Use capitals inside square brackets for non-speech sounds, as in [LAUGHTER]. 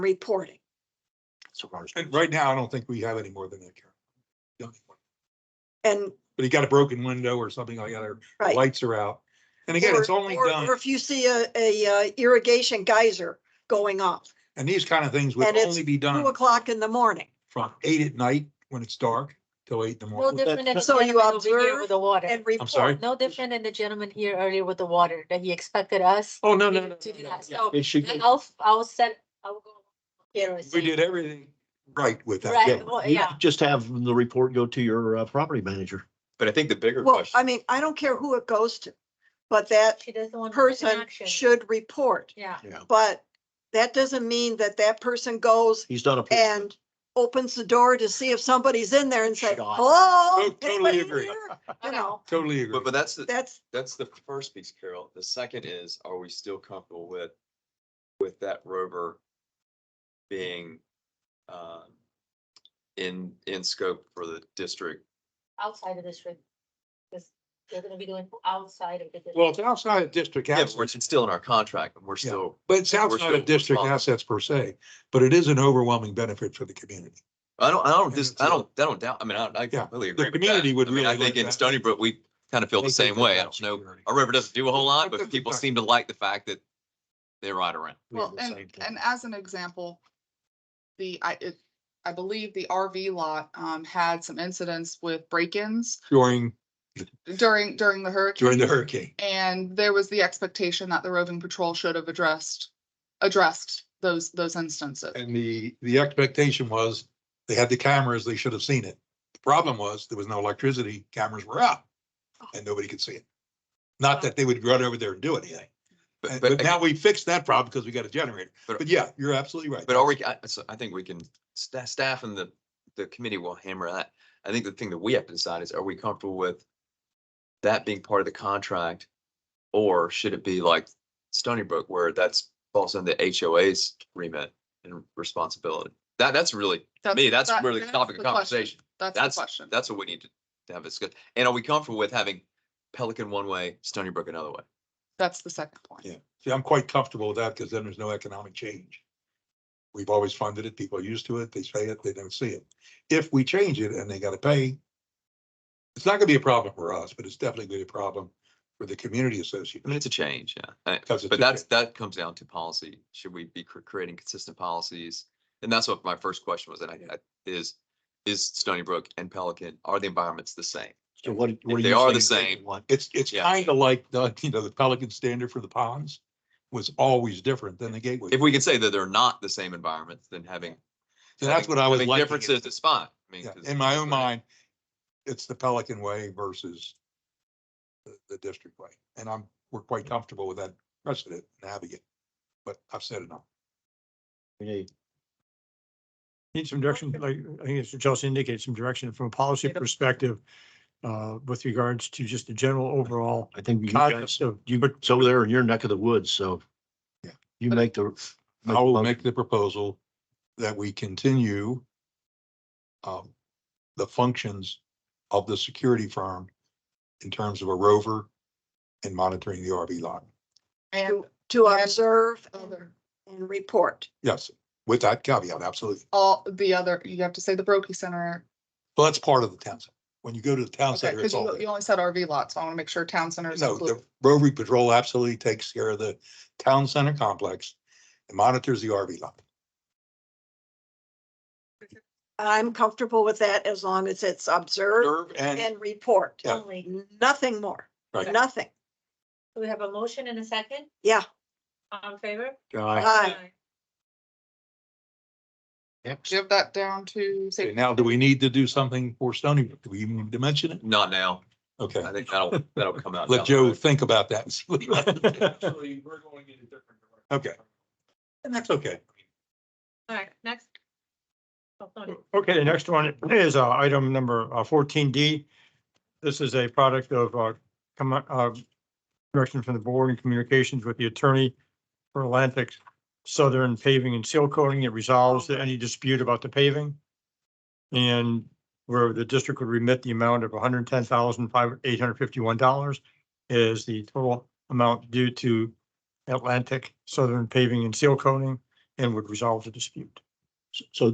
reporting. So ours- And right now, I don't think we have any more than that, Karen. Don't think we- And, But he got a broken window or something like that, or right. lights are out. And again, it's Or- only or- done, Or if you see a, a uh, irrigation geyser going off, and these kind of things would And it's only be two done o'clock in the morning. from eight at night when it's dark till eight in the No morning. different than the So you gentleman over here observe with the water. And report. I'm sorry? No different than the gentleman here earlier with the water, that he expected us. Oh, no, no, no. To do no, that. yeah. So It should, I'll, f- I'll send, I'll go. here and We say- did everything right with that. Right. yeah, well, you yeah. just have the report go to your uh, property manager. But I think the bigger Well, I question, mean, I don't care who it goes to, but that She doesn't want. to take person action. should report. Yeah. But that doesn't mean that that person goes He's done a. and opens the door to see if somebody's in there and say, Shut off. hello? Oh, totally anybody agree. here?" I You know, Totally agree. but, but that's, the that's, that's the first piece, Carol. The second is, are we still comfortable with, with that rover being, um, in, in scope for the district? Outside of this room. Because they're gonna be doing outside of the. Well, it's outside of district Yeah, but we're- assets, it's still in our contract, and we're Yeah. still, but it's outside still of district responsible. assets per se, but it is an overwhelming benefit for the community. I don't, I don't And just, it's- I don't, I don't doubt, I mean, I, I completely agree. with that. community would I mean, I really think like in that. Stony Brook, we kind of feel the They same think way. I about don't know, security. our river doesn't do a whole lot, But but that's people exactly- seem to like the fact that they ride around. We have Well, the same and, thing. and as an example, the, I, it, I believe the RV lot, um, had some incidents with break-ins During, during, during the hurricane. during the hurricane. And there was the expectation that the roving patrol should have addressed, addressed those, those instances. And the, the expectation was they had the cameras, they should have seen it. The problem was there was no electricity, cameras were out and nobody could see it. Not that they would run over there and do anything. But, And- but Uh, But now we fixed that problem because we got a generator. But- But yeah, you're absolutely right. But are we, I, so I think we can, staff, staff and the, the committee will hammer that. I think the thing that we have to decide is, are we comfortable with that being part of the contract? Or should it be like Stony Brook where that's falls under HOA's remit and responsibility? That, that's really, to me, that's that- really the that's topic of question. conversation. That's That's- the question. That's what we need to to have discussed. And are we comfortable with having Pelican one way, Stony Brook another way? That's the second point. Yeah. See, I'm quite comfortable with that because then there's no economic change. We've always funded it. People are used to it. They say it, they don't see it. If we change it and they gotta pay, it's not gonna be a problem for us, but it's definitely gonna be a problem for the community I mean, association. it's a change, yeah. Uh, Because it's But a that's, that comes down to policy. Should we be cr- creating consistent policies? And that's what my first question was, and I, I, is, is Stony Brook and Pelican, are the environments the same? So what, what do they you are say the is same. number one? It's, it's Yeah. kind of like, the [LAUGHS] you know, the Pelican standard for the ponds was always different than the Gateway. If we could say that they're not the same environments, then having. So that's having- what I was having liking it. Differences is fine. I mean, Yeah, 'cause- In my own mind, it's the Pelican way versus the, the district way. And I'm, we're quite comfortable with that precedent and having it. But I've said enough. We need- Need some direction, like, I think as Chelsea indicated, some direction from a policy perspective, uh, with regards to just the general overall I think you guys, concept of, you, it's over there in your neck of the woods, so. Yeah. You make the. I will make the proposal that we continue um, the functions of the security firm in terms of a rover and monitoring the RV lot. And to to And- observe and- other, and report. Yes, with that caveat, absolutely. all the other, you have to say the Brokey Center. Well, that's part of the town center. When you go to the town Okay, center, because it's all. you, you only said RV lots. so I want to make sure town center is No, the included. Rotary Patrol absolutely takes care of the town center complex and monitors the RV lot. I'm comfortable with that as long as it's observe Serve and and report. Yeah. Only. Nothing more, Right. nothing. We have a motion and a second, Yeah. all in favor? uh, Guy, Aye. Give that down to Okay, safety. now, do we need to do something for Stony? Brook? Do we even need to mention it? Not now. Okay, I think that'll, that'll come out. let down the Joe road. think about that. [LAUGHS] and see what he wants to do. Okay. And that's okay. All right, next. Oh, sorry. okay, the next one is, uh, item number fourteen D. This is a product of, uh, come, uh, direction from the board and communications with the attorney for Atlantic Southern Paving and Seal Coating. It resolves any dispute about the paving. And where the district would remit the amount of one hundred ten thousand five, eight hundred fifty-one dollars is the total amount due to Atlantic Southern Paving and Seal Coating. and would resolve the dispute. So